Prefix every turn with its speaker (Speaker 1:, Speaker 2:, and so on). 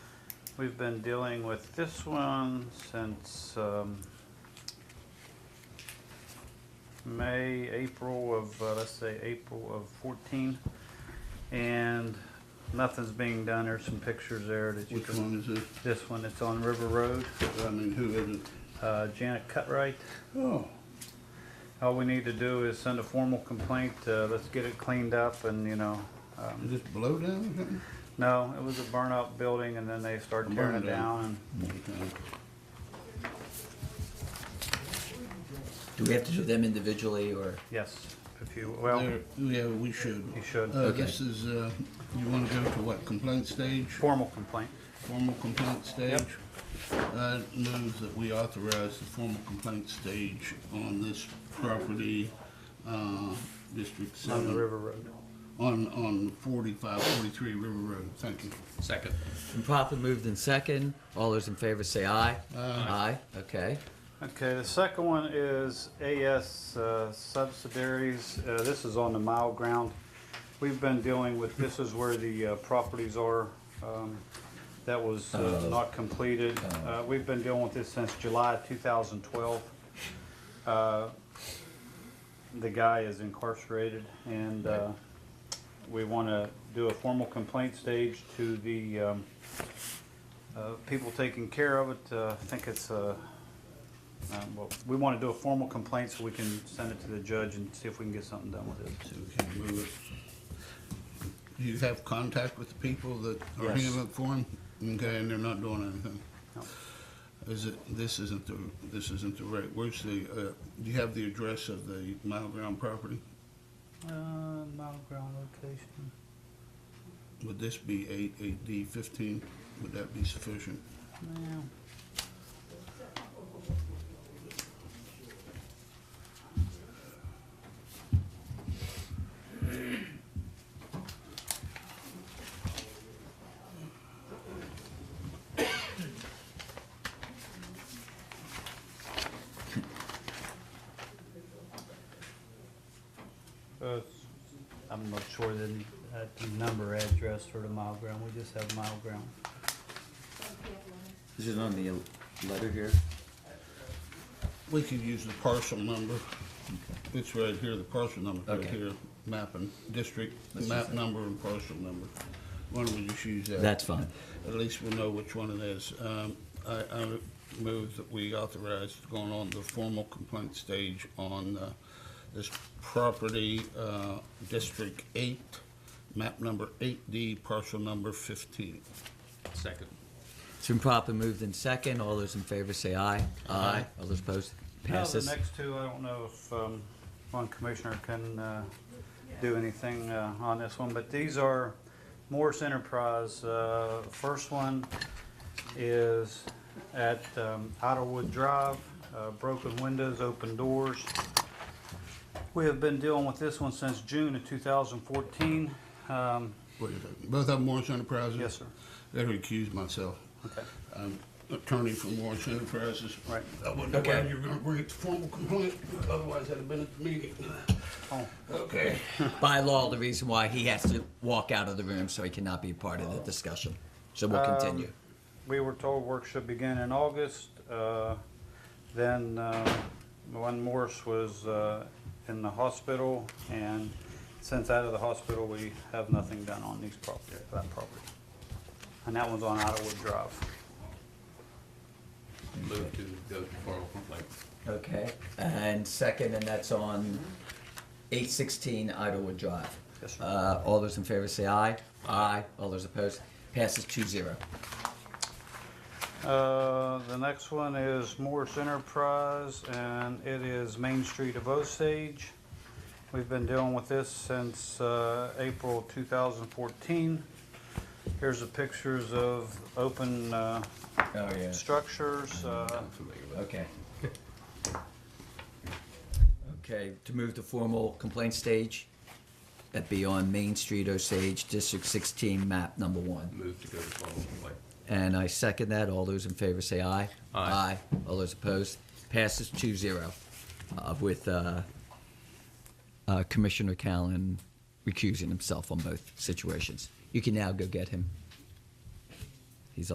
Speaker 1: We've been dealing with this one since um, May, April of, uh, let's say, April of 14. And nothing's being done. There's some pictures there that you
Speaker 2: Which
Speaker 1: can,
Speaker 2: one is it?
Speaker 1: this one, it's on River Road.
Speaker 2: I mean, who is it?
Speaker 1: Uh, Janet Cutright.
Speaker 2: Oh,
Speaker 1: All we need to do is send a formal complaint. uh, Let's get it cleaned up and, you know, um,
Speaker 2: is this blow down or something?
Speaker 1: no, it was a burn up building and then they started tearing it
Speaker 2: Burn down.
Speaker 1: down and
Speaker 2: Okay.
Speaker 3: Do we have to do them individually or?
Speaker 1: Yes, if you, well,
Speaker 2: There- Yeah, we should.
Speaker 1: you should.
Speaker 2: Uh,
Speaker 3: Okay.
Speaker 2: this is, uh, you wanna go to what, complaint stage,
Speaker 1: Formal complaint.
Speaker 2: formal complaint stage? I move that we authorize the formal complaint stage on this property, uh, District
Speaker 1: on the
Speaker 2: Seven,
Speaker 1: River Road.
Speaker 2: on, on forty-five, forty-three River Road, thank you.
Speaker 4: Second.
Speaker 3: Been properly moved in second. All those in favor say aye.
Speaker 2: Aye.
Speaker 3: Aye, okay.
Speaker 1: Okay, the second one is AS uh, subsidiaries. Uh, This is on the mile ground. We've been dealing with, this is where the uh, properties are um, that was uh,
Speaker 3: Uh,
Speaker 1: not completed. Uh, We've been dealing with this since July 2012. Uh, The guy is incarcerated and uh, we want to do a formal complaint stage to the um, uh, people taking care of it. Uh, I think it's uh, um, well, we want to do a formal complaint so we can send it to the judge and see if we can get something done with it.
Speaker 2: So we can move it. Do you have contact with the people that are
Speaker 1: Yes.
Speaker 2: handling it for him? Okay, and they're not doing anything?
Speaker 1: No.
Speaker 2: Is it, this isn't the, this isn't the right, where's the, uh, do you have the address of the mile ground property?
Speaker 1: Uh, ground location.
Speaker 2: Would this be eight, eight D fifteen? Would that be sufficient?
Speaker 1: Uh, I'm not sure the, uh, the number address for the mile ground. We just have mile ground.
Speaker 3: Is it on the letter here?
Speaker 2: We could use the parcel number. It's right here, the parcel number right
Speaker 3: Okay.
Speaker 2: here, mapping, district,
Speaker 3: Let's
Speaker 2: map
Speaker 3: use that.
Speaker 2: number and parcel number. Why don't we just use that?
Speaker 3: That's fine.
Speaker 2: At least we'll know which one it is. Um, I, I move that we authorize going on the formal complaint stage on uh, this property, uh, District Eight, map number eight D, parcel number fifteen.
Speaker 4: Second.
Speaker 3: It's been properly moved in second. All those in favor say aye. Aye. All those opposed?
Speaker 1: Now, the
Speaker 3: Passes.
Speaker 1: next two, I don't know if um, one commissioner can uh, do anything uh, on this one, but these are Morse Enterprise. Uh, First one is at um, Idlewood Drive, uh, broken windows, open doors. We have been dealing with this one since June of 2014. Um,
Speaker 2: Wait a second. Both of them Morris Enterprises?
Speaker 1: Yes, sir.
Speaker 2: Better recuse myself.
Speaker 1: Okay.
Speaker 2: I'm attorney for Morris Enterprises.
Speaker 1: Right.
Speaker 2: I wonder why
Speaker 3: Okay.
Speaker 2: you were gonna bring it to formal complaint, otherwise I'd have been at the meeting.
Speaker 1: Oh,
Speaker 2: Okay.
Speaker 3: By law, the reason why he has to walk out of the room so he cannot be part of the discussion. So we'll
Speaker 1: Um,
Speaker 3: continue.
Speaker 1: We were told work should begin in August. uh, Then uh, when Morse was uh, in the hospital, and since out of the hospital, we have nothing done on these property, that property. And that one's on Ottawa Drive.
Speaker 4: Move to go to formal complaint.
Speaker 3: Okay. And second, and that's on eight sixteen Idlewood Drive.
Speaker 1: Yes, sir.
Speaker 3: Uh, all those in favor say aye. Aye. All those opposed? Passes two zero.
Speaker 1: Uh, The next one is Morse Enterprise, and it is Main Street of Osage. We've been dealing with this since uh, April 2014. Here's the pictures of open uh,
Speaker 3: Oh, yeah.
Speaker 1: structures. uh,
Speaker 4: I'm familiar with it.
Speaker 3: Okay. Okay, to move to formal complaint stage, that be on Main Street, Osage, District 16, map number one.
Speaker 4: Move to go to formal complaint.
Speaker 3: And I second that. All those in favor say aye.
Speaker 4: Aye.
Speaker 3: All those opposed? Passes 2-0 uh, with uh, uh, Commissioner Callan recusing himself on both situations. You can now go get him.